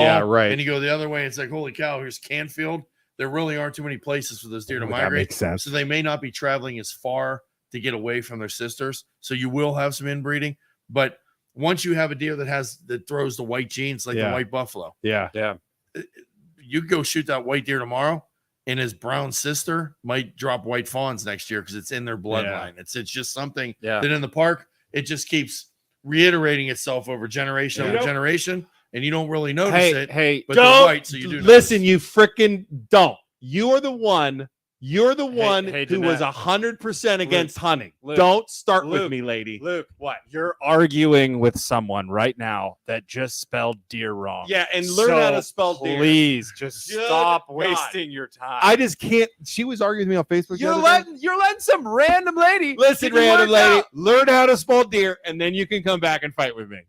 Yeah, right. And you go the other way, it's like, holy cow, here's Canfield. There really aren't too many places for Oh those deer to Well, That migrate. makes sense. So they may not be traveling as far to get away from their sisters. So you will have some inbreeding. But once you have a deer that has that throws the white genes like Yeah. the white buffalo, yeah. you go shoot that white deer tomorrow, and his brown sister might drop white fawns next year because it's in their bloodline. It's it's just something Yeah. that in the park it just keeps reiterating itself over generation Yeah. over generation, and you don't really notice Hey, it. hey, but they're don't white, so you do listen. notice. You freaking don't. You are the one. You're the Hey- one hey, who was Jeanette. hundred percent Luke, against hunting. Luke, don't start with Luke, me, lady. Luke, what? You're arguing with someone right now that just spelled deer wrong. Yeah, and learn how to So spell deer. Please just Good stop God. wasting your time. I just can't. She was arguing with me on Facebook. the you're other day. letting you're letting some random lady. Listen, get your random words lady, out. learn how to spell deer, and then you can come back and fight with me.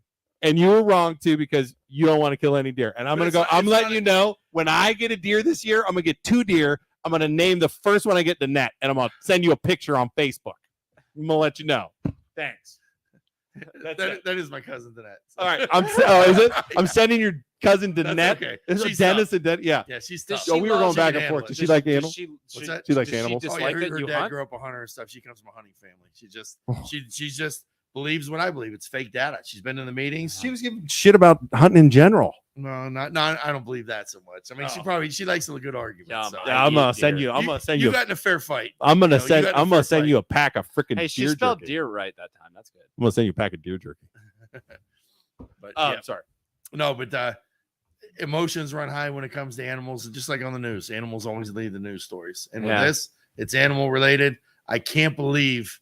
And you were wrong too because you don't want to kill any deer. And I'm But gonna it's go. not- I'm it's letting not a- you know when I get a deer this year, I'm gonna get two deer. I'm gonna name the first one I get the net, and I'm gonna send you a picture on Facebook. I'm gonna let you know. Thanks. That's That- it. that is my cousin to that. All right. I'm. se- Oh, is it? I'm Yeah, sending your cousin the that's net. okay. Is it She's Dennis tough. and Den- Yeah. Yeah, she's Does tough. she Yo, we were going you loves back to and handle forth. it. Did Does she she- like Does animals? She, What's that? She likes does animals? She Oh, dislike yeah, her, that her you dad hunt? grew up a hunter and stuff. She comes from a hunting family. She just Oh. she she just believes what I believe. It's fake data. She's been in the meetings. She was giving shit about hunting in general. no, not no, I don't believe that so much. I mean, she Oh. probably she likes a good argument. Yeah, so. man. Yeah, I'm I gonna eat send deer. you. I'm You- gonna send you you. got in a fair fight. I'm gonna No, you send. got in a I'm gonna fair send fight. you a pack of freaking Hey, she deer spelled jerky. deer right that time. That's good. I'm gonna send you a pack of deer jerky. But Oh, yeah. I'm sorry. Um, no, but uh, emotions run high when it comes to animals, and just like on the news, animals always lead the news stories. And Yeah. with this, it's animal related. I can't believe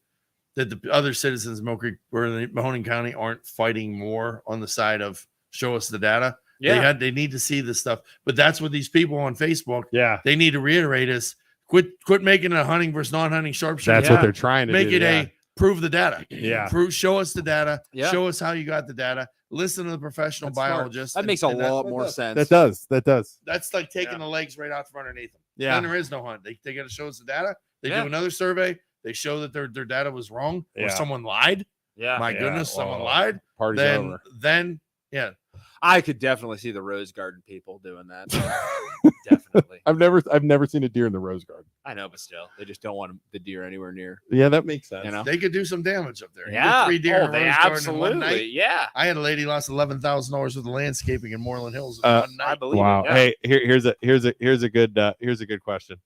that the other citizens of Mill Creek or the Mahoning County aren't fighting more on the side of show us the data. They had they need to see this stuff. But that's what these people on Facebook Yeah, they need to reiterate is quit quit making it a hunting versus non-hunting sharpshooter. that's Yeah. what they're trying to Make do. uh, it a prove the data. yeah. Prove, show us the data. Yeah. Show us how you got the data. Listen to the professional That's smart. biologist. That and- makes a and that- lot that more does- sense. That does. That does. That's like taking Yeah. the legs right out from underneath them. Yeah. Then there is no hunt. They, they got to show us the data. They Yeah. do another survey. They show that their, their data was wrong or Yeah. someone lied. Yeah. My Yeah, goodness, someone well, lied. Party's Then over. then I could definitely see the Rose Garden people doing that. definitely. I've never. I've never seen a deer in the rose garden. I know, but still, they just don't want the deer anywhere near. Yeah, that makes sense. You know? they could do some damage up there. You get Yeah. Three deer oh, in a they rose garden in one night. absolutely. Yeah. I had a lady lost eleven thousand dollars worth of landscaping in Moreland Hills in Uh, one I night. believe. Wow. It. Yeah. Hey, here, here's a here's a here's a good uh, here's a good question.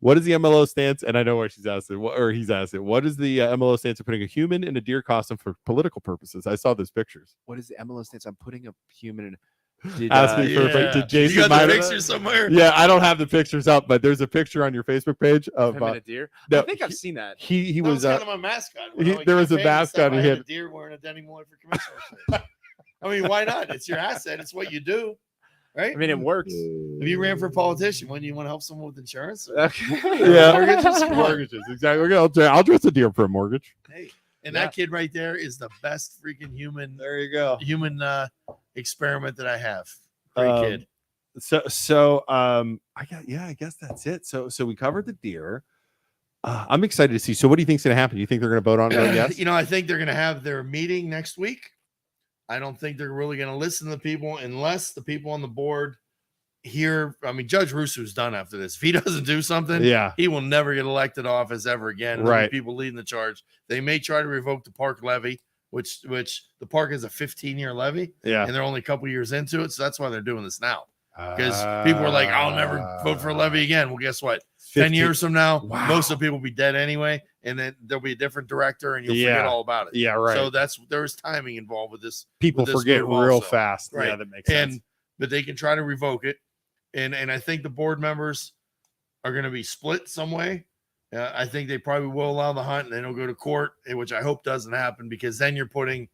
What is the MLO stance? And I know where she's asking, what, or he's asking, what is the uh, MLO stance of putting a human in a deer costume for political purposes? I saw those pictures. What is the MLO stance? I'm putting a human. In, did, uh, Ask me for- Yeah. did Jason you got Myra- the picture somewhere? Yeah, I don't have the pictures up, but there's a picture on your Facebook page of him and uh, a deer. no, I think I've he- seen that. he he That was, was kind uh, of my mascot. he- I there was a campaign and stuff, mascot he I had had. a deer wearing a Denny Moore for commissioner. shirt. I mean, why not? It's your asset. It's what you do, right? I mean, it works. if you ran for politician, wouldn't you want to help someone with insurance? Or- Okay. uh, yeah Mortgages, come on. mortgages exactly. Okay, I'll, dr- I'll dress a deer for a mortgage. Hey, and Yeah. that kid right there is the best freaking human There you go. human uh, experiment that I have. Great Um, kid. so so um i got yeah i guess that's it so so we covered the deer uh, i'm excited to see so what do you think's going to happen you think they're going to vote on it yes You know, I think they're going to have their meeting next week. I don't think they're really going to listen to the people unless the people on the board here. I mean, Judge Russo's done after this. If he doesn't do something, yeah he will never get elected office ever again. There'll be Right. People leading the charge. They may try to revoke the park levy, which which the park is a 15 year levy, yeah and they're only a couple years into it. So that's why they're doing this now because people are like, "I'll never vote for a levy again." Well, guess what? 10 years from now, Wow. most of the people will be dead anyway, and then there'll be a different director and you'll Yeah. forget all about it. yeah right So that's there's timing involved with this. people with this forget move real also. fast yeah Right. that makes sense And but they can try to revoke it. And and I think the board members are going to be split some way. Uh, I think they probably will allow the hunt and then it'll go to court, eh, which I hope doesn't happen because then you're putting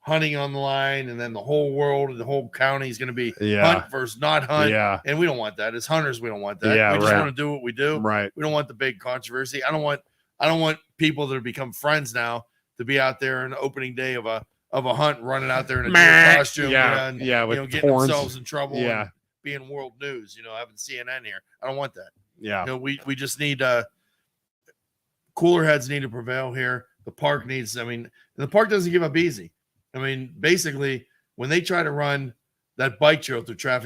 hunting on the line and then the whole world and the whole county is going to be yeah hunt versus not hunt. yeah And we don't want that. As hunters, we don't want that. Yeah, we just right. want to do what we do. right We don't want the big controversy. I don't want I don't want people that have become friends now to be out there on the opening day of a of a hunt running out there in a deer Meh. costume, yeah and, yeah with you know, getting horns themselves in trouble, Yeah. and being world news. You know, having CNN here. I don't want that. yeah You know, we we just need uh cooler heads need to prevail here. The park needs. I mean, the park doesn't give up easy. I mean, basically, when they try to run that bike trail through traffic